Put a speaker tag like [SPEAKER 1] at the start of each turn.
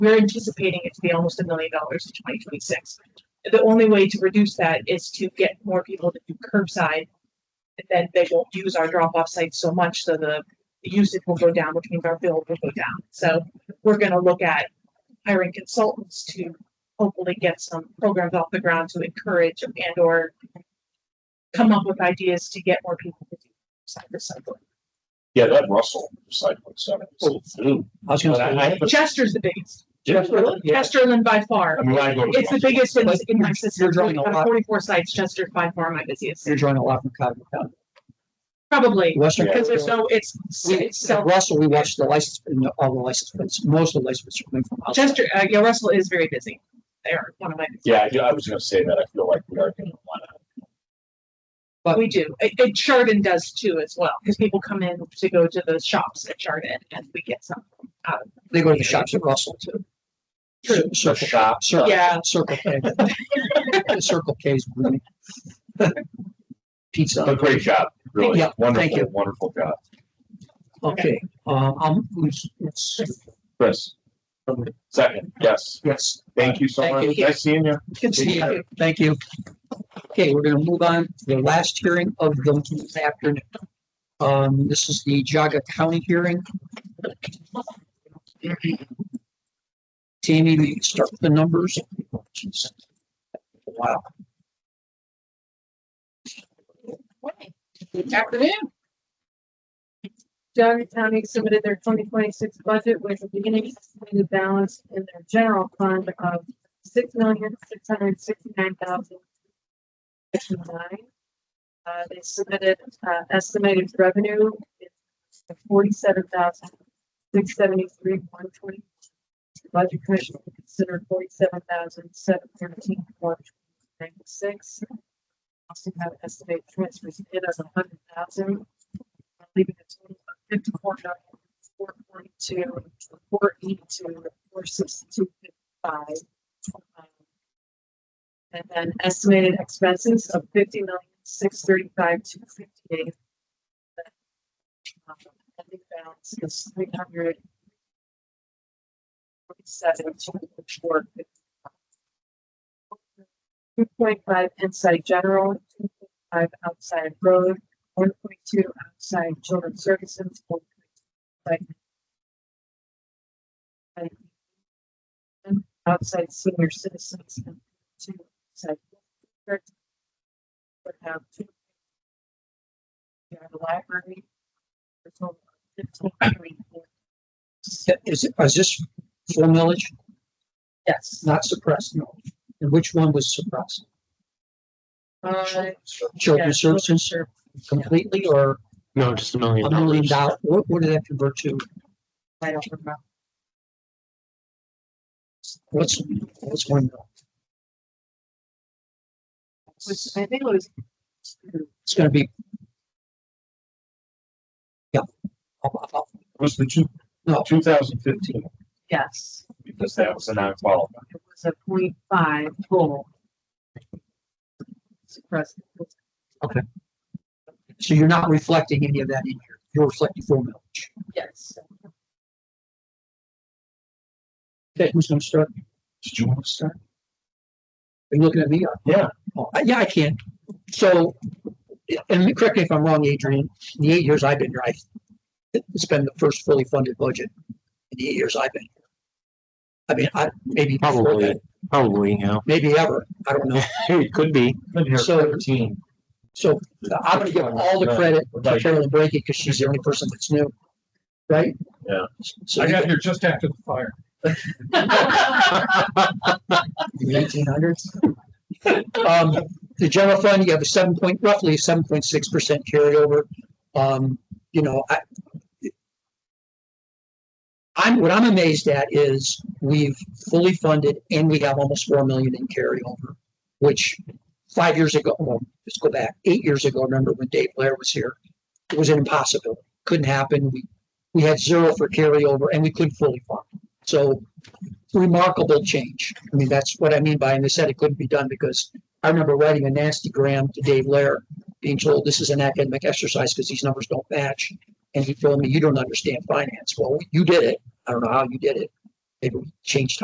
[SPEAKER 1] We're anticipating it to be almost a million dollars in twenty twenty-six. The only way to reduce that is to get more people to do curbside. And then they won't use our drop-off sites so much, so the usage will go down, which means our bill will go down. So we're gonna look at hiring consultants to hopefully get some programs off the ground to encourage and or come up with ideas to get more people to do site recycling.
[SPEAKER 2] Yeah, that Russell recycling center.
[SPEAKER 3] Oh,
[SPEAKER 2] is new.
[SPEAKER 3] I was gonna
[SPEAKER 2] But I- I
[SPEAKER 3] say,
[SPEAKER 2] haven't-
[SPEAKER 1] Chester's the biggest.
[SPEAKER 3] Chesterland, yeah.
[SPEAKER 1] Chesterland by far.
[SPEAKER 2] I mean, I go. to
[SPEAKER 1] It's the biggest in, in my system.
[SPEAKER 3] You're drawing a
[SPEAKER 1] Out of
[SPEAKER 3] lot.
[SPEAKER 1] Forty-four sites, Chester's by far my busiest,
[SPEAKER 3] you're drawing a lot from Cotton County.
[SPEAKER 1] probably,
[SPEAKER 3] Western.
[SPEAKER 2] Yeah.
[SPEAKER 1] because there's no, it's,
[SPEAKER 3] We,
[SPEAKER 1] it's
[SPEAKER 3] at
[SPEAKER 1] so,
[SPEAKER 3] Russell, we watched the license, and all the license plates, most of the license plates are coming from outside.
[SPEAKER 1] Chester, uh, yeah, Russell is very busy. They are one of my,
[SPEAKER 2] Yeah, I do- I was gonna say that. I feel like we are gonna wanna.
[SPEAKER 3] But-
[SPEAKER 1] we do. It, it Chardon does too as well, because people come in to go to the shops at Chardon and we get some.
[SPEAKER 3] They go to the shops at Russell too.
[SPEAKER 1] True.
[SPEAKER 3] Cir- Circle, shop, circle,
[SPEAKER 1] Yeah,
[SPEAKER 3] Circle K. The Circle K's booming. Pizza.
[SPEAKER 2] But great job, really.
[SPEAKER 3] Yeah, thank you.
[SPEAKER 2] Wonderful, wonderful job.
[SPEAKER 3] Okay, um, I'll, let's- let's-
[SPEAKER 2] Chris. Second, yes.
[SPEAKER 3] yes.
[SPEAKER 2] Thank you so
[SPEAKER 3] Thank
[SPEAKER 2] much.
[SPEAKER 3] you.
[SPEAKER 2] Nice seeing you.
[SPEAKER 3] Good to see you. Thank you. Okay, we're gonna move on to the last hearing of the afternoon. Um, this is the Jaga County hearing. Tammy, we can start with the numbers. Wow,
[SPEAKER 4] Good afternoon. Johnson County submitted their twenty twenty-six budget with a beginning estimated balance in their general fund of six million, six hundred sixty-nine thousand. Nine. Uh, they submitted, uh, estimated revenue of forty-seven thousand, six seventy-three, one twenty. Budget commission considered forty-seven thousand, seven thirteen, one ninety-six also have estimated transfers in as a hundred thousand. Leaving a total of fifty-four million, four forty-two, four eighty-two, four sixty-two, fifty-five. And then estimated expenses of fifty million, six thirty-five, two fifty-eight. Ending balance is three hundred. Forty-seven, two, four, fifty. Two point five inside general, two point five outside road, one point two outside children's services. 1.2 outside- and- and Outside senior citizens and two outside. district. But have two. You have a library. for a total of 15.4.
[SPEAKER 3] is, it- is this full millage,
[SPEAKER 4] Yes.
[SPEAKER 3] not suppressed, no? And which one was suppressed?
[SPEAKER 4] Uh,
[SPEAKER 3] Children's
[SPEAKER 4] yeah,
[SPEAKER 3] services
[SPEAKER 4] sure.
[SPEAKER 3] completely or
[SPEAKER 5] No, just a million
[SPEAKER 3] a million
[SPEAKER 5] dollars.
[SPEAKER 3] dollar, what, what did that convert to?
[SPEAKER 4] I don't remember.
[SPEAKER 3] What's, what's one mil?
[SPEAKER 4] It was- I think it was.
[SPEAKER 3] It's gonna be. Yeah. I'll- I'll-
[SPEAKER 2] Was the two,
[SPEAKER 3] No.
[SPEAKER 2] two thousand fifteen,
[SPEAKER 4] Yes.
[SPEAKER 2] because that was a non-qualified.
[SPEAKER 4] it was a point five goal. Suppressed.
[SPEAKER 3] So you're not reflecting any of that in here. You're reflecting full millage.
[SPEAKER 4] Yes.
[SPEAKER 3] Okay, who's gonna start?
[SPEAKER 2] Did you want to start?
[SPEAKER 3] Are you looking at me?
[SPEAKER 2] Yeah.
[SPEAKER 3] Oh, I- Yeah, I can. So, and correct me if I'm wrong, Adrian, in the eight years I've been here, I, it's been the first fully funded budget in the eight years I've been. here. I mean, I, maybe. before
[SPEAKER 5] Probably,
[SPEAKER 3] that,
[SPEAKER 5] probably, you know.
[SPEAKER 3] Maybe ever. I don't know.
[SPEAKER 5] It could be.
[SPEAKER 3] So-
[SPEAKER 2] Thirteen.
[SPEAKER 3] So I'm gonna give all the credit to Carolyn Brady because she's the only person that's new. Right?
[SPEAKER 2] Yeah.
[SPEAKER 3] So you
[SPEAKER 2] here just after the fire.
[SPEAKER 3] the eighteen hundreds. Um, the general fund, you have a seven point, roughly seven point six percent carryover. Um, you know, I. I'm, what I'm amazed at is we've fully funded and we have almost four million in carryover, which five years ago, well, let's go back, eight years ago, remember when Dave Blair was here? It was an impossibility. Couldn't happen. We, we had zero for carryover and we couldn't fully fund. So remarkable change. I mean, that's what I mean by, and they said it couldn't be done because I remember writing a nasty gram to Dave Lair, being told this is an academic exercise because these numbers don't match. And he told me, you don't understand finance. Well, you did it. I don't know how you did it. Maybe we change